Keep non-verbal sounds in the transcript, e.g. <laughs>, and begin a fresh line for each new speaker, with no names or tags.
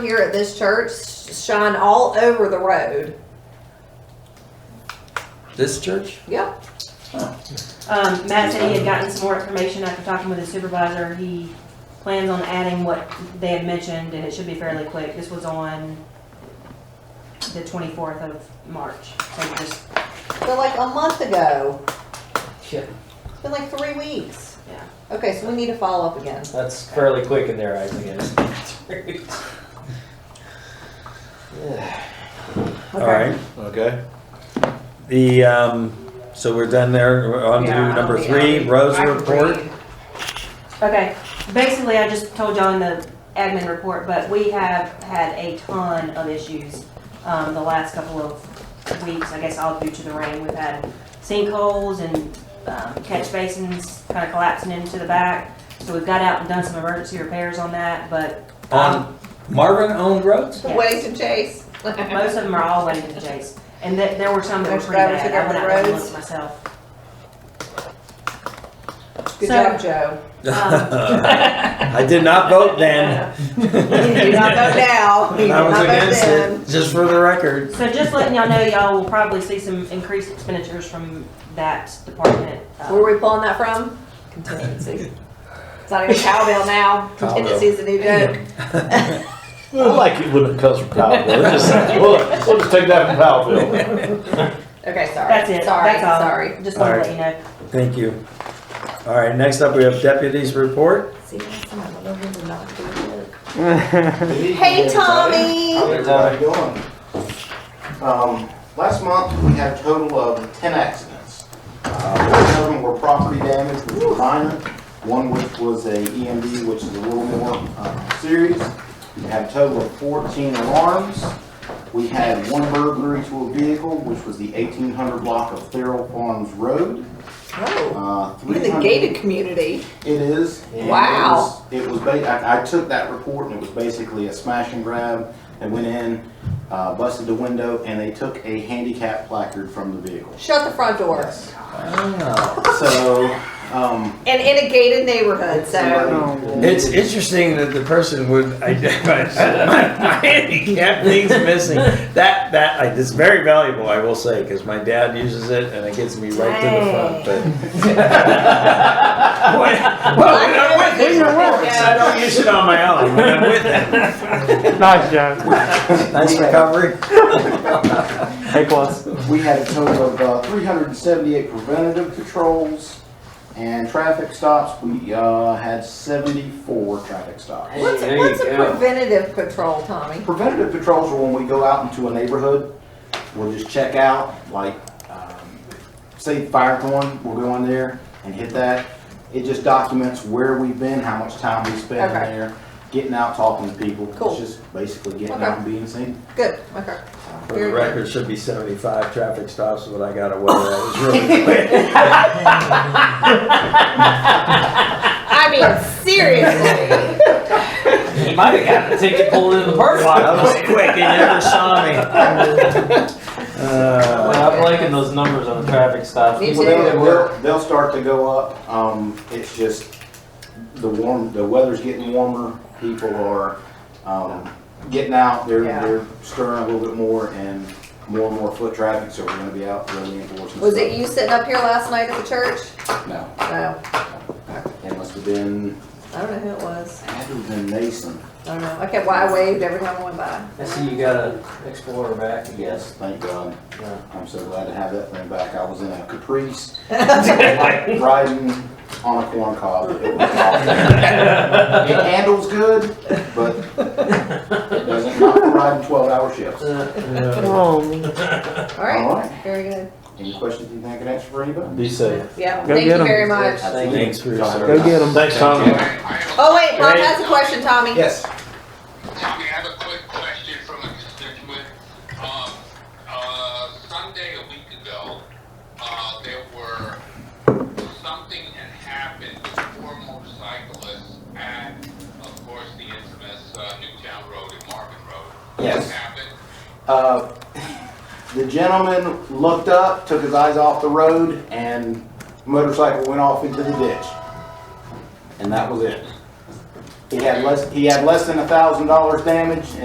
here at this church shine all over the road.
This church?
Yep.
Um, Matt said he had gotten some more information after talking with his supervisor. He plans on adding what they had mentioned, and it should be fairly quick. This was on the twenty-fourth of March, so just,
But like a month ago.
Yeah.
It's been like three weeks.
Yeah.
Okay, so we need to follow up again.
That's fairly quick in their eyes, I guess.
All right.
Okay.
The, um, so we're done there. We're on to
Yeah,
number
I'll be-
three,
I'll be-
Rose
I can
report.
breathe.
okay. Basically, I just told y'all in the admin report, but we have had a ton of issues, um, the last couple of weeks, I guess all due to the rain. We've had sinkholes and, um, catch basins kind of collapsing into the back. So we've got out and done some emergency repairs on that, but. um,
On Marvin owned roads?
Yeah.
Wellington Chase.
Most of them are all Weddington Chase, and there, there were some that were
Those
pretty
drivers
bad,
that
I went
got
out
the
and
roads.
looked
<laughs>
myself.
Good
So-
job, Joe.
<laughs> Um,
Uh, <laughs> I did not vote then. <laughs>
You did not vote now. <laughs> You did
I was
not vote
against
then.
it, just for the record.
So just letting y'all know, y'all will probably see some increased expenditures from that department. uh,
Where are we pulling that from? Contingency. It's not even <laughs> cowbell now. Contingency is a new joke.
Well, like it wouldn't have come from Powellville. Just saying, We'll, we'll just take that from Powellville.
Okay, sorry.
That's it,
Sorry,
that's all.
sorry.
Just wanted to
Alright.
let you know.
Thank you. All right, next up, we have deputies report.
See, that's why I don't know who to not do it. <laughs> Hey, Tommy.
How's everybody doing? Um, last month, we had a total of ten accidents. Uh, Four of them were property damage, which were minor, one which was a EMD, which is a little more, uh, serious. We had a total of fourteen alarms. We had one burglary to a vehicle, which was the eighteen hundred block of Thurl Farms Road.
Oh,
Uh,
you're in
300
the gated community.
it is. and it
Wow.
was- It was, ba- I, I took that report and it was basically a smash and grab. They went in, uh, busted the window and they took a handicap placard from the vehicle.
Shut the front door.
Wow.
So, um.
And in a gated neighborhood, <laughs> so.
somebody-
It's interesting that the person would <laughs> identify my handicap thing's missing. That, that, I- it's very valuable, I will say, because my dad uses it and it gets me right to the front, but. <laughs> When- Well, when I'm with it, it works. I don't use it on my own. When I'm with it.
Nice, Joe.
Nice recovery.
Hey, plus.
We had a total of, uh, three hundred and seventy-eight preventative patrols and traffic stops. We, uh, had seventy-four traffic stops.
What's,
There you
what's a
go.
preventative patrol, Tommy?
Preventative patrols are when we go out into a neighborhood, we'll just check out, like, um, say Firethorn, we'll go in there and hit that. It just documents where we've been, how much time we spent in
Okay.
there, getting out, talking to people.
Cool.
It's just basically getting out and being seen.
Good, okay.
For the record, should be seventy-five traffic stops, but I got away. That was really quick.
I <laughs> mean, seriously.
He might have gotten a ticket pulled in the parking lot. <laughs>
That was quick. They never <laughs> saw me. Uh,
I'm liking those numbers on the traffic stops.
Me
Well,
too.
they'll, they'll, they'll start to go up, um, it's just, the warm, the weather's getting warmer, people are, um, getting out, they're,
Yeah.
they're stirring a little bit more and more and more foot traffic, so we're gonna be out really enforcing.
Was it
stuff.
you sitting up here last night at the church?
No,
No,
it must have been,
I don't know who it was.
had to have been Mason,
I don't know. Okay, well, I waved every time I went by.
I see you got an Explorer back again. <laughs>
yes, thank God,
Yeah.
I'm so glad to have that thing back, I was in a
<laughs>
Caprice, like riding on a corn cob, it was awful. It handles good, but it doesn't not ride in twelve hour shifts.
Oh,
All right,
Alright.
very good.
Any questions you think I can answer for anybody?
Be safe.
Yeah,
Go
thank you
get 'em.
very much.
Thanks for your
John.
service.
go get them.
Thanks, Tom.
Oh, wait, Bob has a question, Tommy.
Yes.
Tommy, I have a quick question from a constituent. Um, uh, Sunday a week ago, uh, there were, something had happened with four motorcyclists at, of course, the infamous, uh, Newtown Road and Marvin Road.
Yes.
What happened?
Uh, the gentleman looked up, took his eyes off the road, and motorcycle went off into the ditch. And that was it. He had less, he had less than a thousand dollars damage,